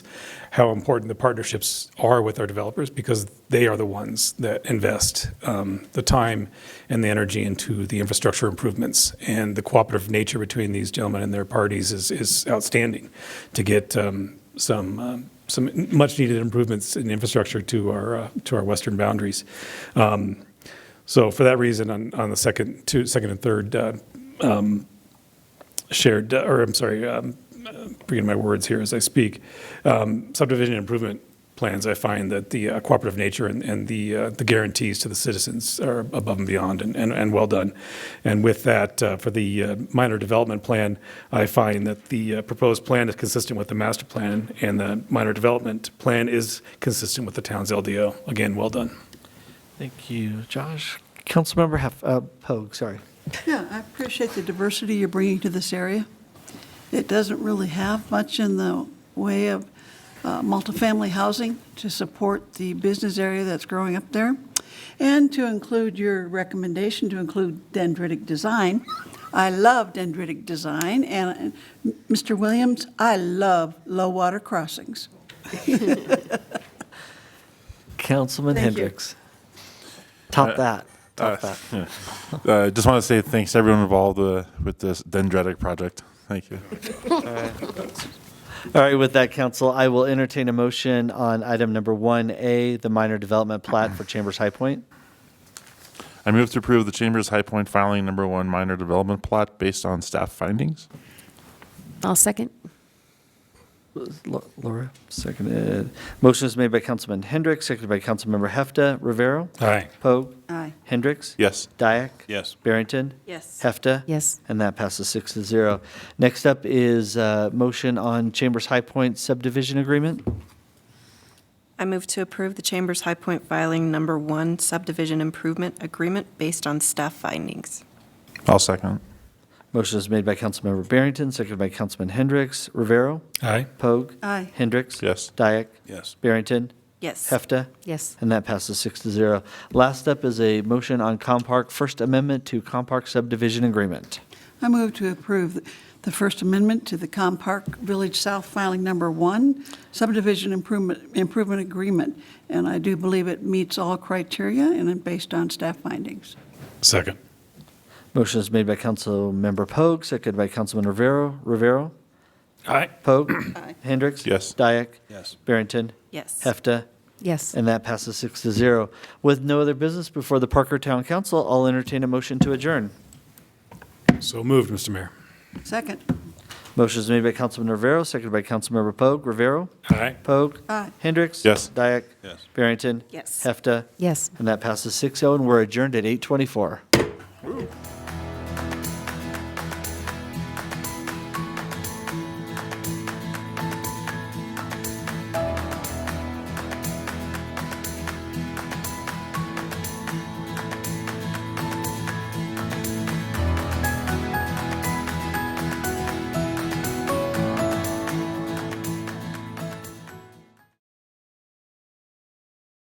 how important the partnerships are with our developers because they are the ones that invest um, the time and the energy into the infrastructure improvements. And the cooperative nature between these gentlemen and their parties is, is outstanding to get um, some um, some much-needed improvements in infrastructure to our uh, to our western boundaries. Um, so for that reason, on, on the second, two, second and third uh, um, shared, or I'm sorry, um, uh, bringing my words here as I speak, um, subdivision improvement plans, I find that the uh, cooperative nature and, and the, uh, the guarantees to the citizens are above and beyond and, and, and well done. And with that, uh, for the uh, minor development plan, I find that the uh, proposed plan is consistent with the master plan and the minor development plan is consistent with the town's LDO. Again, well done. Thank you, Josh. Councilmember Hef, uh, Pogue, sorry. Yeah, I appreciate the diversity you're bringing to this area. It doesn't really have much in the way of uh, multifamily housing to support the business area that's growing up there. And to include your recommendation to include dendritic design. I love dendritic design, and uh, Mr. Williams, I love low-water crossings. Councilman Thank you. Hendricks. Top that, top that. Uh, just want to say thanks to everyone involved uh, with this dendritic project. Thank you. All right, with that, council, I will entertain a motion on item number 1A, the minor development plat for Chambers High Point. I move to approve the Chamber's High Point filing number one minor development plot based on staff findings. I'll second. Lo- Laura, seconded. Motion is made by Councilman Hendricks, seconded by Councilmember Hefta. Rivera? Aye. Pogue? Aye. Hendricks? Yes. Dyak? Yes. Barrington? Yes. Hefta? Yes. And that passes six to zero. Next up is uh motion on Chambers High Point subdivision agreement. I move to approve the Chamber's High Point filing number one subdivision improvement agreement based on staff findings. I'll second. Motion is made by Councilmember Barrington, seconded by Councilman Hendricks. Rivera? Aye. Pogue? Aye. Hendricks? Yes. Dyak? Yes. Barrington? Yes. Hefta? Yes. And that passes six to zero. Last up is a motion on Compark First Amendment to Compark Subdivision Agreement. I move to approve the First Amendment to the Com Park Village South Filing Number One subdivision improvement, improvement agreement, and I do believe it meets all criteria and is based on staff findings. Second. Motion is made by Councilmember Pogue, seconded by Councilman Rivera. Rivera? Aye. Pogue? Hendricks? Yes. Dyak? Yes. Barrington? Yes. Hefta? Yes. And that passes six to zero. With no other business before the Parker Town Council, I'll entertain a motion to adjourn. So moved, Mr. Mayor. Second. Motion is made by Councilman Rivera, seconded by Councilmember Pogue. Rivera? Aye. Pogue? Aye. Hendricks? Yes. Dyak? Yes. Barrington? Yes. Hefta? Yes. oh, And that passes 6-0, and we're adjourned at 8:24.